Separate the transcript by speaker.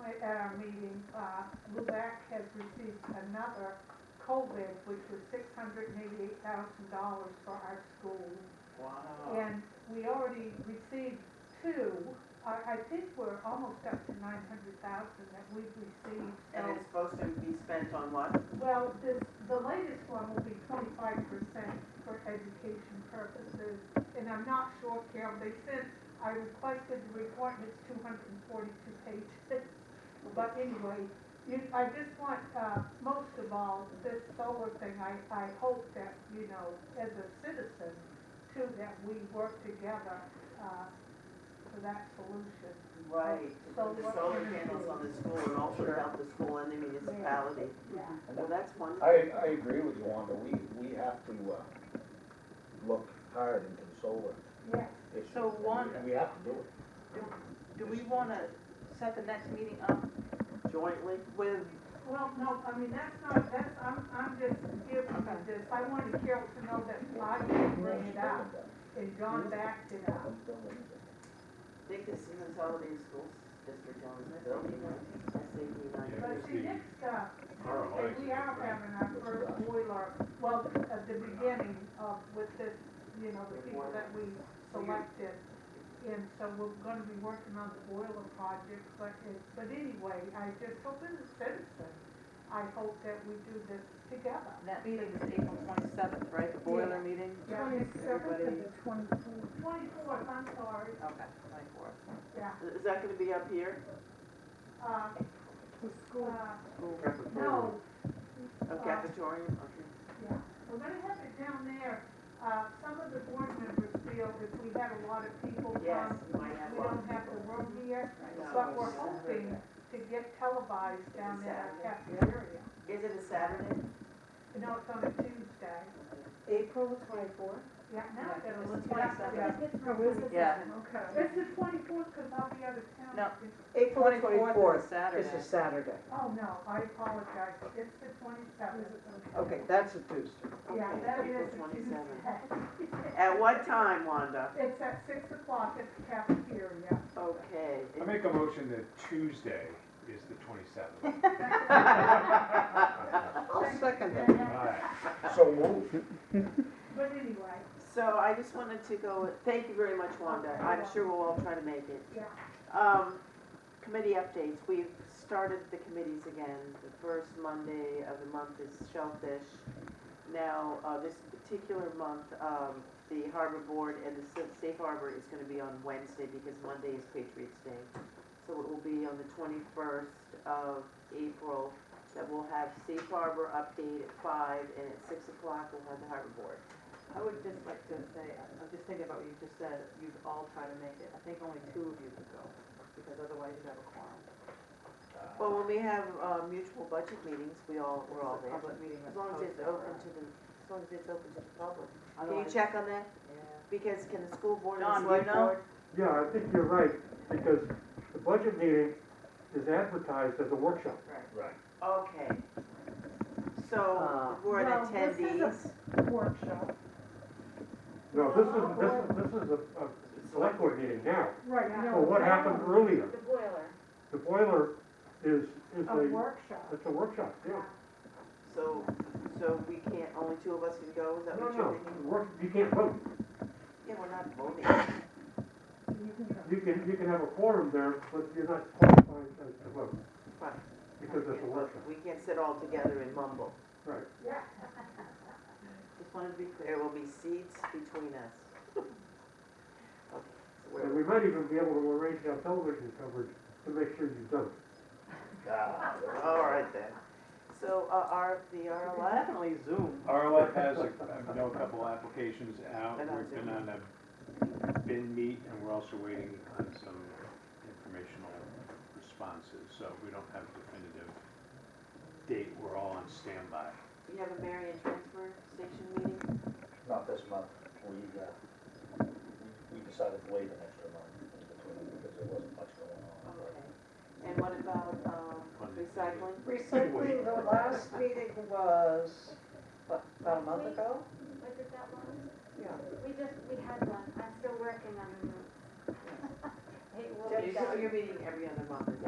Speaker 1: wait, at our meeting, uh, Lubac has received another COVID, which was six hundred and eighty-eight thousand dollars for our school.
Speaker 2: Wow.
Speaker 1: And we already received two, I, I think we're almost up to nine hundred thousand that we've received, so.
Speaker 2: And it's supposed to be spent on what?
Speaker 1: Well, this, the latest one will be twenty-five percent for education purposes, and I'm not sure, Carol, they sent, I requested the report, and it's two hundred and forty-two pages. But anyway, you, I just want, uh, most of all, this solar thing, I, I hope that, you know, as a citizen, too, that we work together, uh, for that solution.
Speaker 2: Right,
Speaker 1: So
Speaker 2: the
Speaker 1: what
Speaker 2: solar
Speaker 1: can we
Speaker 2: panels
Speaker 1: do?
Speaker 2: on the school and also help the school and the municipality.
Speaker 1: Yeah.
Speaker 2: Well, that's wonderful.
Speaker 3: I, I agree with you, Wanda, we, we have to, uh, look hard into the solar
Speaker 1: Yes,
Speaker 3: issue.
Speaker 4: So, Wanda-
Speaker 3: We have to do it.
Speaker 4: Do we wanna set the next meeting um, up?
Speaker 2: Jointly with,
Speaker 1: Well, no, I mean, that's not, that's, I'm, I'm just giving you this, I wanted Carol to know that I did bring it up, and John backed it up.
Speaker 2: I think this is consolidated schools district, John, isn't it? SAP nine.
Speaker 1: But see, next, uh, and we are having our first boiler, well, at the beginning of, with this, you know, the people that we selected. And so we're gonna be working on the boiler project, but it, but anyway, I just hope as a citizen, I hope that we do this together.
Speaker 4: That meeting is April twenty-seventh, right, the boiler meeting?
Speaker 1: Yeah.
Speaker 4: Everybody,
Speaker 1: Twenty-fourth, I'm sorry,
Speaker 4: okay, twenty-fourth.
Speaker 1: yeah,
Speaker 2: Is that gonna be up here?
Speaker 1: uh, uh, No,
Speaker 2: Of cafetorium, okay.
Speaker 1: yeah, we're gonna have it down there. Uh, some of the board members feel if we had a lot of people
Speaker 2: Yes,
Speaker 1: come,
Speaker 2: you might have
Speaker 1: we
Speaker 2: a lot of
Speaker 1: don't have the
Speaker 2: people.
Speaker 1: room here,
Speaker 2: No,
Speaker 1: but we're
Speaker 2: it's Saturday.
Speaker 1: hoping to get televised down there at
Speaker 2: Saturday.
Speaker 1: cafeteria.
Speaker 2: Is it a Saturday?
Speaker 1: You know, it's on a Tuesday.
Speaker 5: April the twenty-fourth?
Speaker 1: Yeah, now I gotta
Speaker 4: It's the
Speaker 1: look it up.
Speaker 4: 22nd.
Speaker 5: Yeah.
Speaker 4: Yeah.
Speaker 5: Okay.
Speaker 1: It's the twenty-fourth, cause I'll be out of town.
Speaker 4: No.
Speaker 5: April the twenty-fourth.
Speaker 4: is Saturday.
Speaker 5: It's a Saturday.
Speaker 1: Oh, no, I apologize. It's the twenty-seventh.
Speaker 5: Okay, that's a Tuesday.
Speaker 1: Yeah,
Speaker 2: Okay,
Speaker 1: that
Speaker 2: April
Speaker 1: is a
Speaker 2: 27th.
Speaker 1: Tuesday.
Speaker 2: At what time, Wanda?
Speaker 1: It's at six o'clock at the cafeteria.
Speaker 2: Okay.
Speaker 6: I make a motion that Tuesday is the twenty-seventh.
Speaker 5: I'll second that.
Speaker 3: So move.
Speaker 1: But anyway,
Speaker 2: So I just wanted to go, thank you very much, Wanda. I'm sure we'll all try to make it.
Speaker 1: yeah,
Speaker 2: Um, committee updates, we've started the committees again. The first Monday of the month is Shellfish. Now, uh, this particular month, um, the Harbor Board and the Sa- Safe Harbor is gonna be on Wednesday because Monday is Patriots Day. So it will be on the twenty-first of April that we'll have Safe Harbor update at five and at six o'clock we'll have the Harbor Board.
Speaker 4: I would just like to say, I- I'm just thinking about what you just said, you'd all try to make it. I think only two of you could go, because otherwise you'd have a quorum.
Speaker 2: Well, when we have, uh, mutual budget meetings, we all, we're all
Speaker 4: It's a
Speaker 2: there.
Speaker 4: Public meeting.
Speaker 2: As long as it's open to the, as long as it's open to the public. Can you
Speaker 4: Otherwise-
Speaker 2: check on that?
Speaker 4: Yeah.
Speaker 2: Because can the school board
Speaker 4: Don,
Speaker 2: and
Speaker 4: do
Speaker 2: select
Speaker 4: you know?
Speaker 2: board?
Speaker 7: Yeah, I think you're right, because the budget meeting is advertised as a workshop.
Speaker 3: Right.
Speaker 2: Okay. So,
Speaker 5: Uh,
Speaker 2: we're an
Speaker 1: Well, this is a-
Speaker 2: attendees.
Speaker 1: workshop.
Speaker 7: No, this is, this is, this is a, a select board meeting now.
Speaker 1: Right,
Speaker 7: So Oh, what happened earlier,
Speaker 8: The boiler.
Speaker 7: the boiler is, is
Speaker 1: A
Speaker 7: a,
Speaker 1: workshop.
Speaker 7: it's a workshop, yeah.
Speaker 2: So, so we can't, only two of us can go, is that
Speaker 7: No,
Speaker 2: what you're
Speaker 7: no,
Speaker 2: thinking?
Speaker 7: work, you can't vote.
Speaker 2: Yeah, we're not voting.
Speaker 7: You can, you can have a forum there, but you're not qualified as to vote,
Speaker 2: Fine.
Speaker 7: because it's a workshop.
Speaker 2: We can't sit all together and mumble.
Speaker 7: Right.
Speaker 1: Yeah.
Speaker 2: Just wanted to be clear, there will be seats between us. Okay, so we're-
Speaker 7: And we might even be able to arrange our television coverage to make sure you don't.
Speaker 2: All right then. So, uh, our, the RLF?
Speaker 4: Definitely Zoom.
Speaker 6: RLF has, a- I know a couple applications out,
Speaker 2: Been on
Speaker 6: we've been
Speaker 2: Zoom.
Speaker 6: on a bin meet, and we're also waiting on some informational responses, so we don't have a definitive date, we're all on standby.
Speaker 2: You have a Marion transfer station meeting?
Speaker 3: Not this month, we, uh, we we decided to wait an extra month in between because there wasn't much going on.
Speaker 2: Uh-huh.
Speaker 3: but-
Speaker 2: Okay. And what about, um, recycling?
Speaker 5: Recycling, the last meeting was, what, about a month ago?
Speaker 8: Was it that long?
Speaker 5: Yeah.
Speaker 8: We just, we had one. I'm still working on the roof. It will
Speaker 2: Your
Speaker 8: be done.
Speaker 2: your meeting every other month is